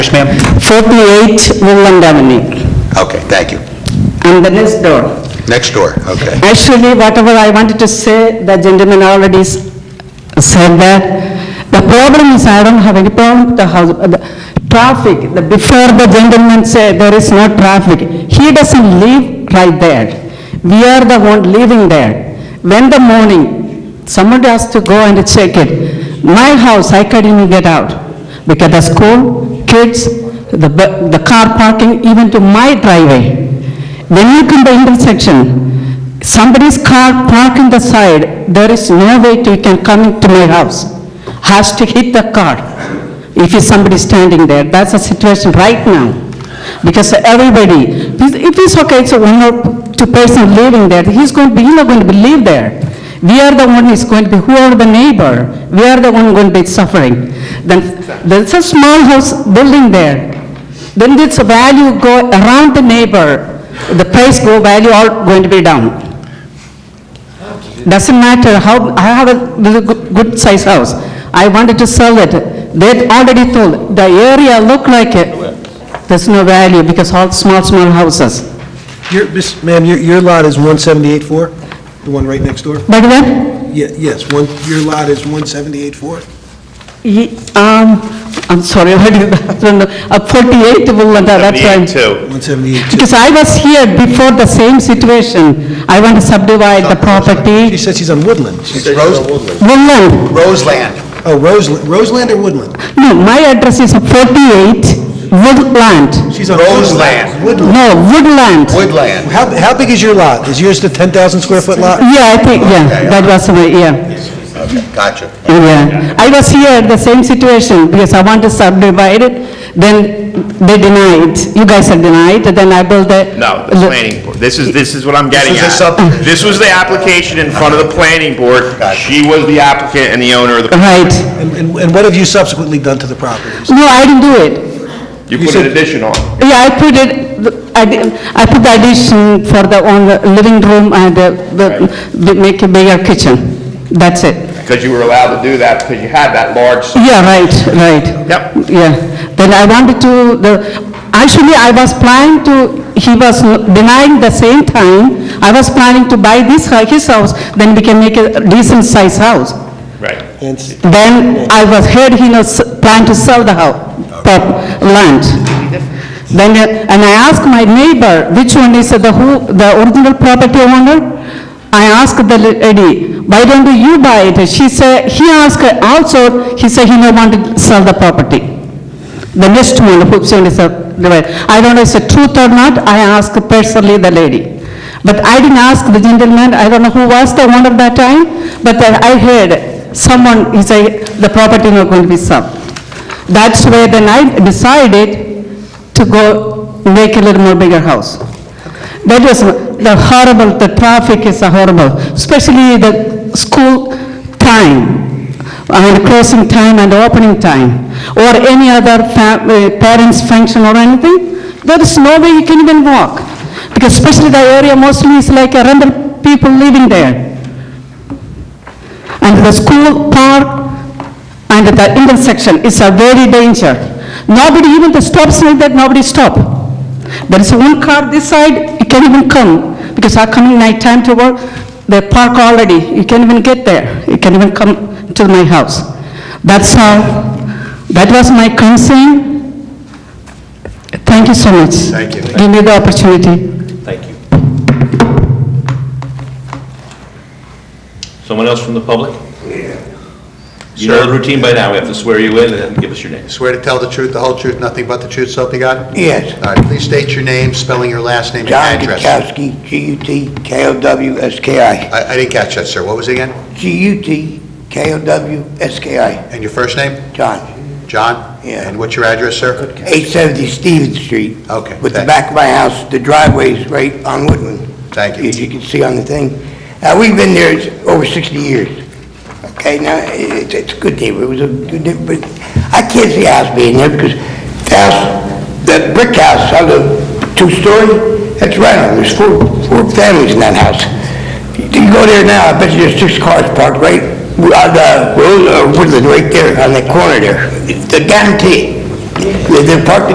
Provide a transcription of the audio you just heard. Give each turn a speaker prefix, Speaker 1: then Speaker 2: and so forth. Speaker 1: Yes, ma'am.
Speaker 2: 48 Woodland Avenue,
Speaker 3: Okay, thank you.
Speaker 2: on the next door.
Speaker 3: Next door, okay.
Speaker 2: Actually, whatever I wanted to say, the gentleman already s- said that. The problem is, I don't have any problem with the house, uh, the traffic, The- before the gentleman said, there is no traffic. He doesn't live right there. We are the one living there. When the morning, somebody has to go and check it. My house, I can't even get out, because the school, kids, the bu- the car parking, even to my driveway. When you come to intersection, somebody's car parked in the side, there is no way to, you can come into my house. Has to hit the car if is somebody standing there. That's the situation right now. Because everybody, if if it's okay, it's one or two person living there, he's going to be, he's not going to be live there. We are the one who's going to be, who are the neighbor, we are the one going to be suffering. Then, there's a small house building there. Then this value go around the neighbor, the price go value all going to be down. Doesn't matter how, I have a little good- good size house, I wanted to sell it, they already told, the area look like it, there's no value because all small, small houses.
Speaker 4: Your, Miss- ma'am, your, your lot is 178.4? The one right next door?
Speaker 2: But then,
Speaker 4: Ye- Yes, one, your lot is 178.4?
Speaker 2: ye- um, I'm sorry, what is that, Uh, 48 Woodland, that's why. I'm-
Speaker 4: 178.2.
Speaker 2: Because I was here before the same situation, I want to subdivide the
Speaker 4: She
Speaker 2: property,
Speaker 4: said she's on Woodland. She's-
Speaker 3: Rose-
Speaker 2: Woodland.
Speaker 3: Roseland,
Speaker 4: Oh, Roseland, Roseland or Woodland?
Speaker 2: No, my address is 48 Woodland.
Speaker 4: She's on
Speaker 3: Roseland.
Speaker 4: Woodland.
Speaker 2: No, Woodland.
Speaker 3: Woodland.
Speaker 4: How, how big is your lot? Is yours the 10,000 square foot lot?
Speaker 2: Yeah, I think, yeah, that was my, yeah,
Speaker 3: Okay, gotcha.
Speaker 2: yeah. I was here, the same situation, because I want to subdivide it, then they denied, you guys are denied, then I built the...
Speaker 5: No, the planning board. This is, this is what I'm getting
Speaker 3: This is a
Speaker 5: at.
Speaker 3: sub-
Speaker 5: This was the application in front of the planning board.
Speaker 3: Gotcha.
Speaker 5: She was the applicant and the owner of the,
Speaker 2: Right.
Speaker 4: And, and and what have you subsequently done to the properties?
Speaker 2: No, I didn't do it.
Speaker 5: you put an addition on.
Speaker 2: Yeah, I put it, I did- I put the addition for the, on the living room and the- the, the- make a bigger kitchen. That's it.
Speaker 5: Because you were allowed to do that because you had that large, s-
Speaker 2: Yeah, right, right.
Speaker 5: Yep.
Speaker 2: Yeah, then I wanted to, the, actually, I was planning to, he was denying the same time, I was planning to buy this, hou- his house, then we can make a decent size house.
Speaker 5: right.
Speaker 4: And-
Speaker 2: Then I was heard he was planning to sell the house, land. Then, uh, and I asked my neighbor, which one is the who, the original property owner? I asked the lady, why don't you buy it? She said, he asked her also, he said he no want to sell the property. The next one, who's on is a, I don't know if it's a truth or not, I asked personally the lady. But I didn't ask the gentleman, I don't know who was the one at that time, but I I heard someone, he said, the property not going to be sold. That's where then I decided to go make a little more bigger house. That was the horrible, the traffic is horrible, especially the school time, I mean uh, closing time and opening time, or any other fa- uh, parents' function or anything, there is no way you can even walk, because especially the area mostly is like a rental people living there. And the school park and the intersection is a very danger. Nobody, even the stop sign that nobody stop. There is one car this side, you can't even come, because I coming night time to work, they park already, you can't even get there, you can't even come to my house. That's all, that was my concern. Thank you so much. Thank you. Give me the opportunity.
Speaker 6: Someone else from the public? You know the routine by now, we have to swear you in and then give us your name.
Speaker 3: Swear to tell the truth, the whole truth, nothing but the truth, so help you God?
Speaker 7: Yes.
Speaker 3: All right, please state your name, spelling your last name and
Speaker 7: John
Speaker 3: Uh, address.
Speaker 7: Gutkowski, G-U-T-K-O-W-S-K-I.
Speaker 3: I I didn't catch that, sir. What was it again?
Speaker 7: G-U-T-K-O-W-S-K-I,
Speaker 3: And your first name?
Speaker 7: John.
Speaker 3: John?
Speaker 7: Yeah.
Speaker 3: And what's your address, sir?
Speaker 7: 870 Stevens Street.
Speaker 3: Okay,
Speaker 7: With the
Speaker 3: thank-
Speaker 7: back of my house, the driveway's right on Woodland.
Speaker 3: Thank you.
Speaker 7: As you can see on the thing. Now, we've been there s- over 60 years. Okay, now, i- it's it's a good neighbor, it was a good neighbor, but I can't see a house being there because the house, that brick house, on the two-story, that's right on, there's four, four families in that house. You go there now, I bet you there's six cars parked right uh, on the, Woodland, right there, on that corner there. The guarantee. They're parked